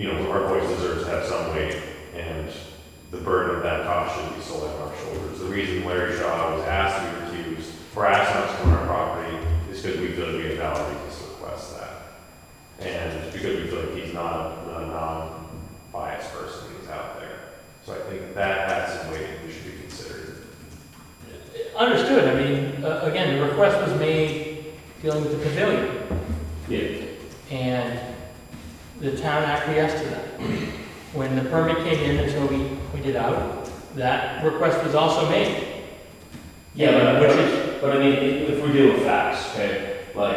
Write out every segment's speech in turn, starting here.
our voice deserves to have some weight, and the burden of that cost should be solely on our shoulders. The reason Larry Shaw was asked to be recused, or asked not to come on our property, is because we feel like we have valid reasons to request that. And because we feel like he's not a a non-biased person who's out there. So I think that has some weight we should be considered. Understood, I mean, uh, again, the request was made dealing with the pavilion, Yeah. and the town acquiesced to that. When the permit came in until we, we did out, that request was also made. Yeah, but, Which but, is, but I mean, if if we deal with facts, okay, like,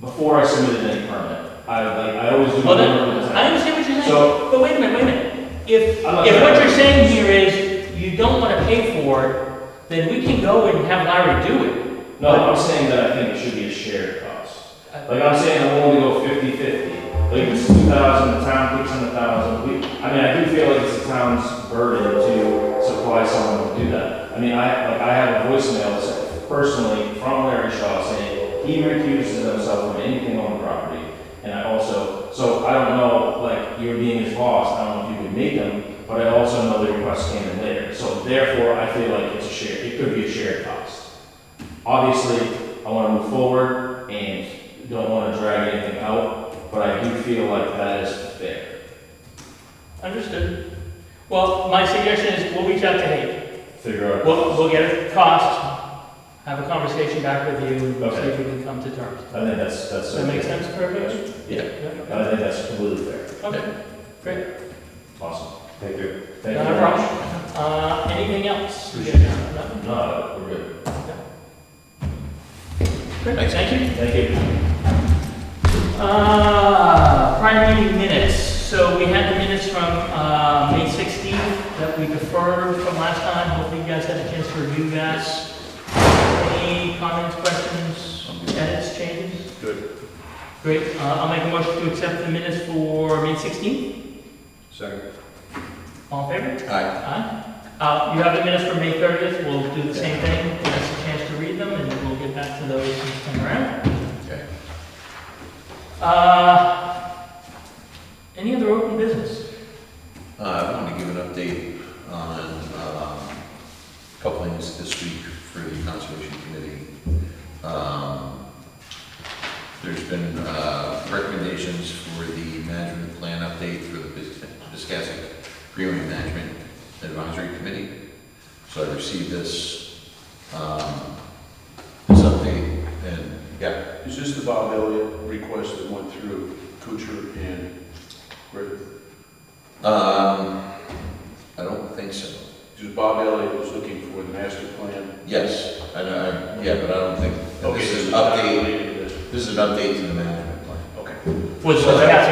before I submitted any permit, I, like, I always do. my well, homework with then, the town. I understand what you're saying, So- but wait a minute, wait a minute. If, if I'm not what trying- you're saying here is you don't wanna pay for it, then we can go and have Larry do it. No, I'm saying that I think it should be a shared cost. Like, I'm saying I'm willing to go fifty-fifty. Like, it's two thousand, the town puts in a thousand, we, I mean, I do feel like it's the town's burden to supply someone to do that. I mean, I, like, I have a voicemail that's personally from Larry Shaw saying he recuses himself from anything on the property. And I also, so I don't know, like, you're being his boss, I don't know if you could make them, but I also know the request came in later. So therefore, I feel like it's a shared, it could be a shared cost obviously, I want to move forward and don't want to drag anything out, but I do feel like that is fair. Understood. Well, my suggestion is we'll reach out to Hank. Figure out. We'll, we'll get a cost, have a conversation back with you, and see Okay. if we can come to terms. I think that's, that's. Does that make sense for everybody? Yeah. Yeah, I think that's completely fair. Okay, Okay, great. Awesome. Thank you. Thank you. Not a very problem. much. Uh, anything else? Appreciate it. No? No, we're good. Great, thank you. Thank you. Uh, prior meeting minutes, so we had the minutes from, uh, May sixteenth that we deferred from last time. Hopefully you guys had a chance to review that. Any comments, questions, edits, changes? Good. Great, uh, I'll make a motion to accept the minutes for May 16th. Second. All in favor? Aye. Aye. Uh, You have the minutes for May 30th, we'll do the same thing, give us a chance to read them, and we'll get back to those next time around. Okay. Uh, Any other open business? Uh, I want to give an update on, um, a couple things this week for the Conservation Committee. Um, There's been, uh, recommendations for the management plan update for the Bis- Biscayne Greenway Management Advisory Committee. So I received this, um, this update, and, yeah, Is this the Bob Elliott request that went through Kuchar and Griffith? um, I don't think so. Because Bob Elliott was looking for the master plan. Yes, I know, I- yeah, but I don't think, this is an not update, related to this. this is an update to the management plan. Okay. Was the And that,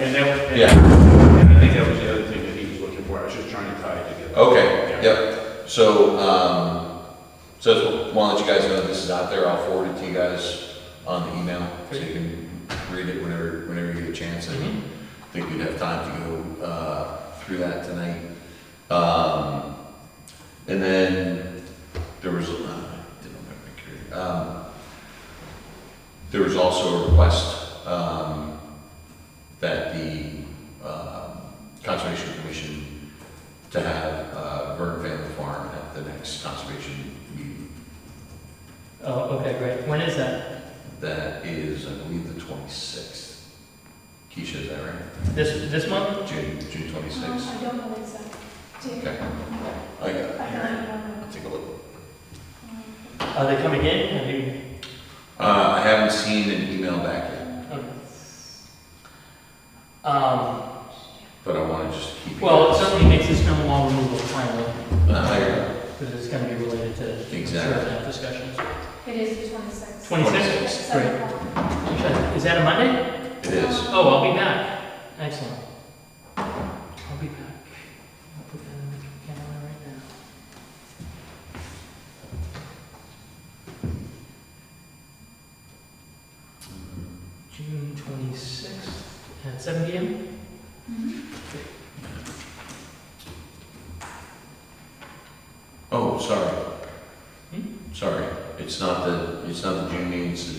and- Yeah, and I think that was the other thing that he was looking for. I was just trying to tie it together. okay, yep. So, um, so just want to let you guys know this is out there, I'll forward it to you guys on the email, so you can read it whenever, whenever you get a chance. I Mhm. think we'd have time to go, uh, through that tonight. Um, and then there was, uh, I didn't have my computer. um, there was also a request, um, that the, um, Conservation Commission to have, uh, Vern Family Farm at the next conservation meeting. Oh, okay, great. When is that? That is, I believe, the twenty-sixth. Keisha, is that right? This, this month? June, June twenty-sixth? I don't know the exact date. Okay. I got I it here. don't know. I'll take a look. Are they coming in? Have you? Uh, I haven't seen an email back yet, okay. Um, but I wanna just keep. you Well, it guys- certainly makes this no long removal final. Uh, I got it. Because it's gonna be related to Exactly. certain discussions. It is the 26th. 26th? At seven o'clock. Is that a Monday? It is. Oh, I'll be back. Excellent. I'll be back. I'll put that in the calendar right now. June twenty-sixth at seven P M? Mhm. Oh, sorry. Hmm? Oh, Sorry, it's not the, it's not the June meeting, it's the